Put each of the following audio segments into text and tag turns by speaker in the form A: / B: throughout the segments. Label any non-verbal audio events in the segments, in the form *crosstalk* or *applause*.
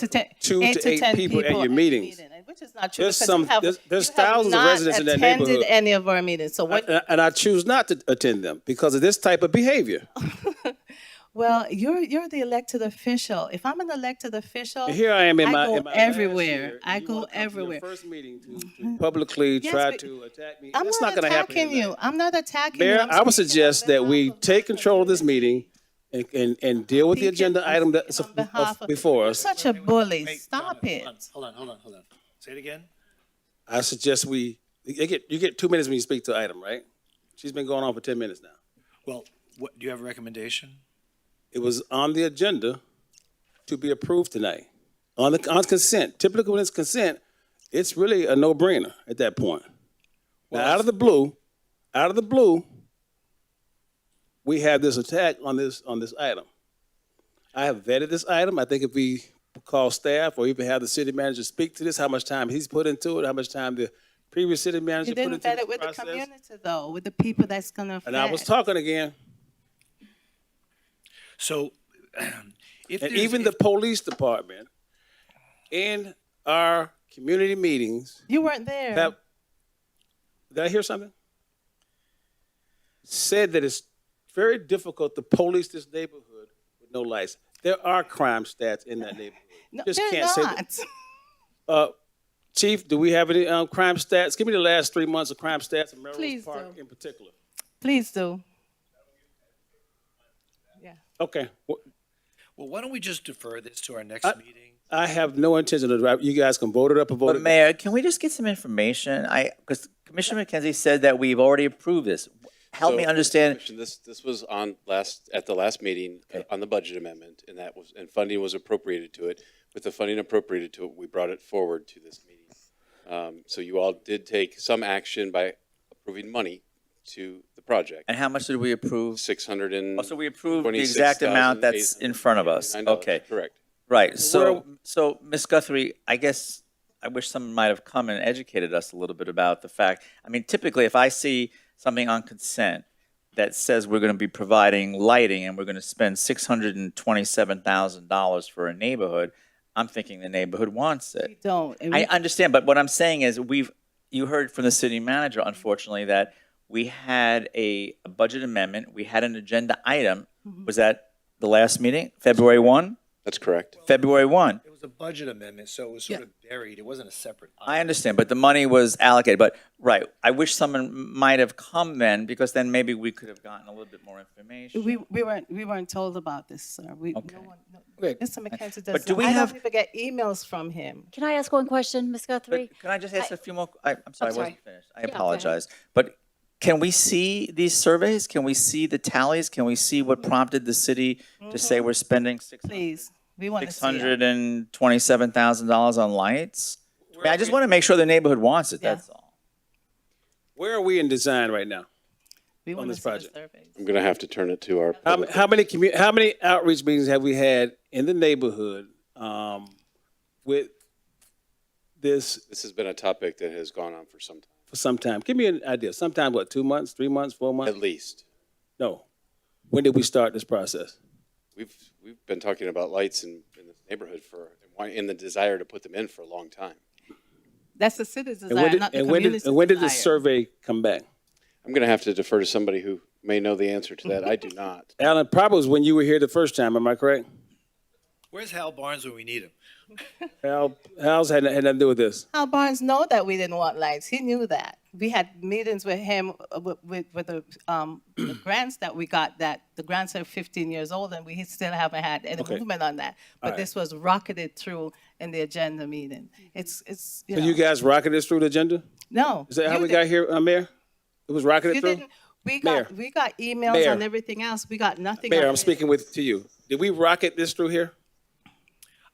A: to ten,
B: Two
A: eight
B: to
A: to
B: eight
A: 10
B: people at your meetings.
A: and- Which is not true.
B: There's
A: because
B: some-
A: you have-
B: there's- there's
A: you have
B: thousands of
A: not
B: residents in that
A: attended
B: neighborhood.
A: Any of our meetings, so what,
B: And and I choose not to attend them because of this type of behavior.
A: Oh, well, you're, you're the elected official. If I'm an elected official.
B: Here I am in
A: I
B: my,
A: go
B: in my last
A: everywhere.
B: year,
A: I
B: and you
A: go
B: wanna come to your
A: everywhere. Mm-hmm.
B: first meeting to- to publicly try
A: but-
B: to attack me.
A: I'm
B: That's
A: not
B: gonna happen
A: attacking
B: tonight.
A: you. I'm not attacking you.
B: Mayor,
A: I'm
B: I would
A: speaking
B: suggest
A: on
B: that we
A: behalf of
B: take
A: my
B: control of this
A: community.
B: meeting and, and, and deal with the
A: Speaking-
B: agenda
A: I'm
B: item that's
A: speaking on behalf of-
B: before
A: You're
B: us.
A: Such a bully.
C: Wait,
A: Stop
C: Donna,
A: it.
C: hold on, Hold on, hold on, hold on. Say it again?
B: I suggest we, you get, you get two minutes when you speak to item, right? She's been going on for ten minutes now.
C: Well, what, do you have a recommendation?
B: It was on the agenda to be approved tonight, on the, on consent. Typically, when it's consent, it's really a no-brainer at that point. Now, out of the blue, out of the blue, we have this attack on this, on this item. I have vetted this item. I think if we call staff or even have the city manager speak to this, how much time he's put into it, how much time the previous city manager
A: You
B: put into
A: didn't vet
B: this
A: it with the
B: process.
A: community though, with the people that's gonna affect.
B: And I was talking again.
C: So, *clears throat* if
B: And
C: there's-
B: even the
C: if-
B: police department in our community meetings
A: You weren't there.
B: have, did I hear something? Said that it's very difficult to police this neighborhood with no lights. There are crime stats in that neighborhood.
A: *laughs* No,
B: just
A: they're
B: can't say that-
A: not.
B: Uh, Chief, do we have any, um, crime stats? Give me the last three months of crime stats in Melrose
A: Please
B: Park
A: do.
B: in particular.
A: Please do. Yeah.
B: Okay, Wh-
C: well, why don't we just defer this to our next
B: Uh,
C: meeting?
B: I have no intention of, you guys can vote it up or vote
D: But
B: it down.
D: Mayor, can we just get some information? I, because Commissioner McKenzie said that we've already approved this. Help
E: So,
D: me understand,
E: Commissioner, This, this was on last, at the last meeting, uh, on the budget amendment, and that was, and funding was appropriated to it. With the funding appropriated to it, we brought it forward to this meeting. Um, So you all did take some action by approving money to the project,
D: and how much did we approve?
E: six hundred and.
D: Oh, so we approved the exact amount that's in front of us. Okay,
E: Correct.
D: right. So, so Ms. Guthrie, I guess I wish someone might have come and educated us a little bit about the fact. I mean, typically, if I see something on consent that says we're going to be providing lighting and we're going to spend six hundred and twenty-seven thousand dollars for a neighborhood, I'm thinking the neighborhood wants it.
A: We don't. And
D: I
A: we-
D: understand, but what I'm saying is we've, you heard from the city manager, unfortunately, that we had a a budget amendment, we had an agenda item. Was that the last meeting, February 1?
E: That's correct.
D: February 1.
C: It was a budget amendment, so it was sort of buried. It wasn't a separate.
D: I understand, but the money was allocated, but, right, I wish someone might have come then, because then maybe we could have gotten a little bit more information.
A: We, we weren't, we weren't told about this, sir. We, no
D: Okay.
A: one, no-
F: Okay.
A: Mr. McKenzie
D: But
A: does
D: do
A: not,
D: we
A: I don't
D: have-
A: even get emails from him.
G: Can I ask one question, Ms. Guthrie?
D: But can I just ask a few more, I, I'm sorry, I
G: sorry.
D: wasn't finished. I
G: ahead.
D: apologize. But can we see these surveys? Can we see the tallies? Can we see what prompted the city to say we're spending six hundred?
A: Please, we want to
D: Six
A: see it.
D: hundred and twenty-seven thousand dollars on lights? I mean, I just want to make sure the neighborhood wants it,
A: Yeah.
D: that's all.
B: Where are we in design right now?
A: We want to
B: this
A: see the
B: project.
A: surveys.
E: I'm gonna have to turn it to our.
B: How, m- how many commu- how many outreach meetings have we had in the neighborhood um, with this
E: This has been a topic that has gone on for some time,
B: for some time? Give me an idea. Sometime what? Two months? Three months? Four
E: at
B: months?
E: least.
B: No. When did we start this process?
E: We've, we've been talking about lights in, in this neighborhood for, and the desire to put them in for a long time.
A: That's the city's
B: And when
A: desire,
B: did,
A: not the
B: and when did,
A: community's
B: and when did the
A: desire.
B: survey come back?
E: I'm going to have to defer to somebody who may know the answer to that. I do not.
B: Alan, probably was when you were here the first time. Am I correct?
C: Where's Hal Barnes when we need him?
B: Hal, Hal's had, had nothing to do with this.
A: Hal Barnes know that we didn't want lights. He knew that. We had meetings with him uh, with, with, with the, um,
B: *clears throat*
A: the grants that we got that the grants are 15 years old and we he still haven't had any
B: Okay.
A: movement on that. But
B: right.
A: this was rocketed through in the agenda meeting. It's it's you
B: Mm-hmm. So
A: know,
B: you guys rocketed this through the agenda?
A: no.
B: Is that how
A: you
B: we
A: did-
B: got here, uh, Mayor? It was rocketed
A: You
B: through?
A: didn't. We got
B: Mayor.
A: we got emails
B: Mayor.
A: and everything else. We got nothing.
B: Mayor,
A: on
B: I'm
A: this.
B: speaking with to you. Did we rocket this through here?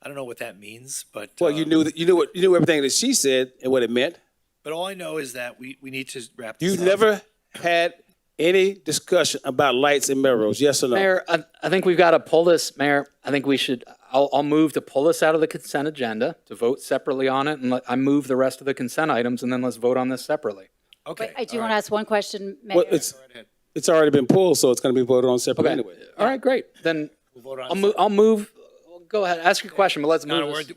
C: I don't know what that means, but.
B: Well, you
C: um,
B: knew that you knew what you knew everything that she said and what it meant.
C: But all I know is that we, we need to wrap
B: You
C: this up.
B: never had any discussion about lights in Melrose, yes or no?
F: Mayor, I, I think we've got to pull this, Mayor, I think we should, I'll, I'll move to pull this out of the consent agenda, to vote separately on it, and let, I move the rest of the consent items, and then let's vote on this separately.
C: Okay.
G: I do
C: all
G: want to
C: right.
G: ask one question, Mayor.
B: well, it's it's already been pulled, so it's going to be voted on separately anyway.
F: All right, great, then,
C: We'll vote on
F: I'll move, I'll move, go ahead, ask your question, but let's
C: No, no,
F: move
C: we're-
F: this.